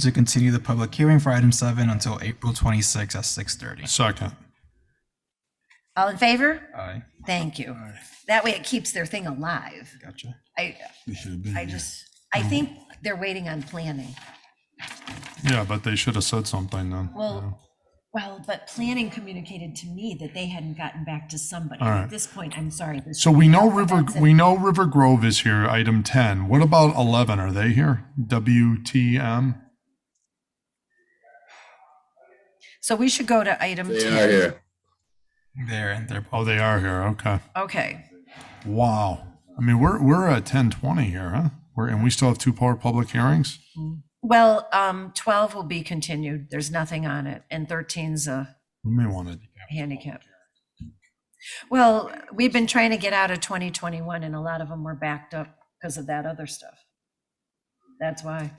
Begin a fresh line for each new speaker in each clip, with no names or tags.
to continue the public hearing for item seven until April 26 at 6:30.
Second.
All in favor?
Aye.
Thank you. That way it keeps their thing alive.
Gotcha.
I,
They should have been
I
here. Mm-hmm.
just, I think they're waiting on planning.
Yeah, but they should have said something then.
Well, well, but planning communicated to me that they hadn't gotten back to somebody.
All right.
At this point, I'm sorry. this-
So we know River,
That's it.
we know River Grove is here, item 10. What about 11? Are they here? WTM?
So we should go to item
They
10.
are here.
There and there.
Oh, they are here. Okay.
Okay,
Wow. I mean, we're, we're at 1020 here, huh? We're, and we still have two power public hearings?
well, um, 12 will be continued. There's nothing on it. And 13's a
We may want to.
handicap. Well, we've been trying to get out of 2021 and a lot of them were backed up because of that other stuff. That's why.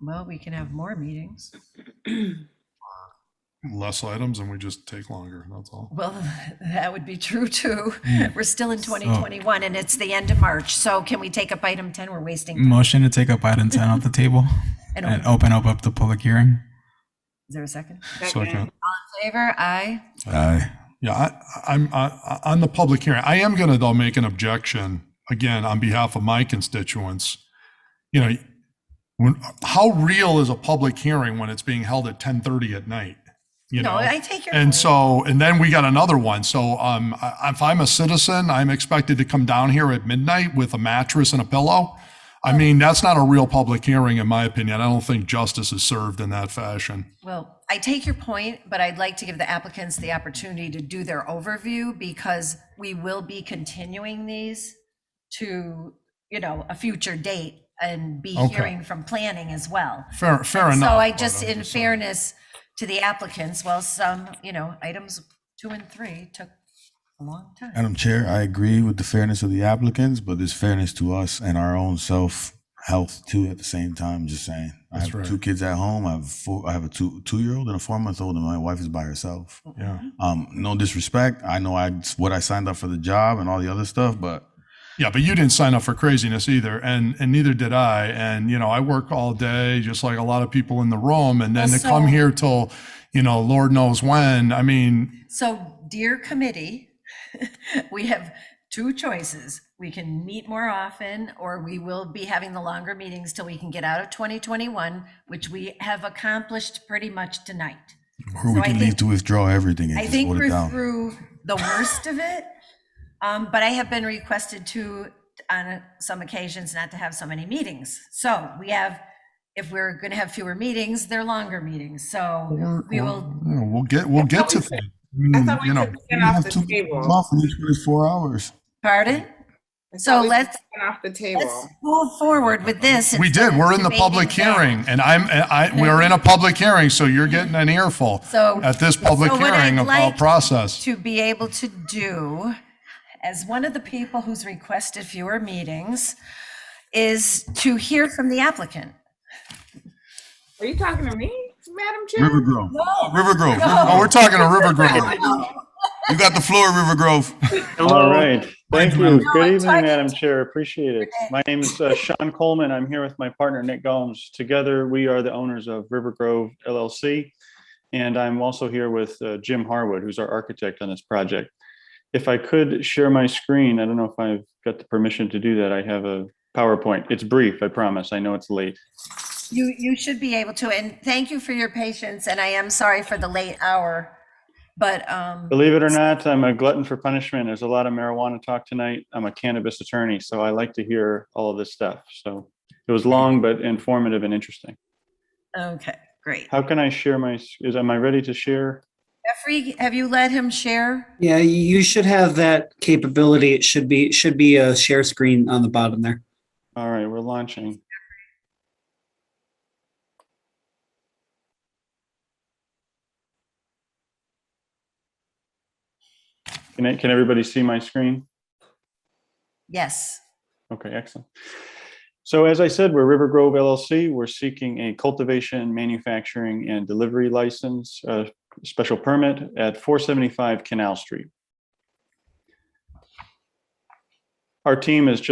Well, we can have more meetings.
Less items and we just take longer. That's all.
Well, that would be true too. We're still in 2021 and it's the end of March. So can we take up item 10? We're
Mm,
wasting.
Motion to take up item 10 off the table
and
and
oh.
Is
open up up the public hearing.
there a second?
Second.
Favor, aye.
Aye.
Yeah, I, I'm, I, on the public hearing, I am going to though make an objection, again, on behalf of my constituents. You know, when, how real is a public hearing when it's being held at 10:30 at night? You
No,
know?
I take your.
And
point.
so, and then we got another one. So, um, I- if I'm a citizen, I'm expected to come down here at midnight with a mattress and a pillow. I mean, that's not a real public hearing, in my opinion. I don't think justice is served in that fashion.
Well, I take your point, but I'd like to give the applicants the opportunity to do their overview because we will be continuing these to, you know, a future date and be
Okay.
hearing from planning as well.
Fair, fair
So
enough.
I
but
just,
I'm
in
saying.
fairness to the applicants, well, some, you know, items two and three took a long time.
Madam Chair, I agree with the fairness of the applicants, but there's fairness to us and our own self health too at the same time, just saying. I
That's
have
right.
two kids at home. I have four, I have a two, two-year-old and a four-month-old and my wife is by herself.
Yeah.
Um, no disrespect. I know I, what I signed up for the job and all the other stuff, but
Yeah, but you didn't sign up for craziness either, and and neither did I. And you know, I work all day, just like a lot of people in the room, and then
Well,
to come
so-
here till, you know, Lord knows when. I mean,
So dear committee, we have two choices. We can meet more often, or we will be having the longer meetings till we can get out of 2021, which we have accomplished pretty much tonight.
or
So
we
I
can
think-
leave to withdraw everything and
I
just
think
vote it
we're
down.
through the worst of it. Um, but I have been requested to, on some occasions, not to have so many meetings. So we have, if we're gonna have fewer meetings, they're longer meetings, so
we're- we're-
we will,
you know, we'll get we'll get to
we
that.
said-
I
thought
Mm,
we
you know,
took
We
it off
have
the
two
table.
months off and each one is four hours.
pardon?
I thought
So
we took
let's,
it Off the
let's
table.
move forward with this.
we
instead
did.
of
We're in the
debating
public
that.
hearing, and I'm I, I we're in a public hearing, so you're getting an earful
So-
at this public
so what I'd
hearing about
like
process.
To be able to do, as one of the people who's requested fewer meetings, is to hear from the applicant.
Are you talking to me, Madam Chair?
River Grove. River Grove. River
No.
oh,
Grove.
we're talking to River Grove.
You got the floor, River Grove.
All right. Thank you.
I'm
Good evening,
talking
Madam Chair. Appreciate it. My name is uh, Sean Coleman. I'm here with my partner, Nick Gomes. Together, we are the owners of River Grove LLC. And I'm also here with uh, Jim Harwood, who's our architect on this project. If I could share my screen, I don't know if I've got the permission to do that. I have a PowerPoint. It's brief, I promise. I know it's late.
You, you should be able to, and thank you for your patience, and I am sorry for the late hour, but, um,
Believe it or not, I'm a glutton for punishment. There's a lot of marijuana talk tonight. I'm a cannabis attorney, so I like to hear all of this stuff. So it was long, but informative and interesting.
okay, great.
How can I share my, is, am I ready to share?
Jeffrey, have you let him share?
Yeah, you should have that capability. It should be, should be a share screen on the bottom there.
All right, we're launching. Can, I- can everybody see my screen?
Yes.
Okay, excellent. So as I said, we're River Grove LLC. We're seeking a cultivation, manufacturing, and delivery license, uh, special permit at 475 Canal Street. Our team is just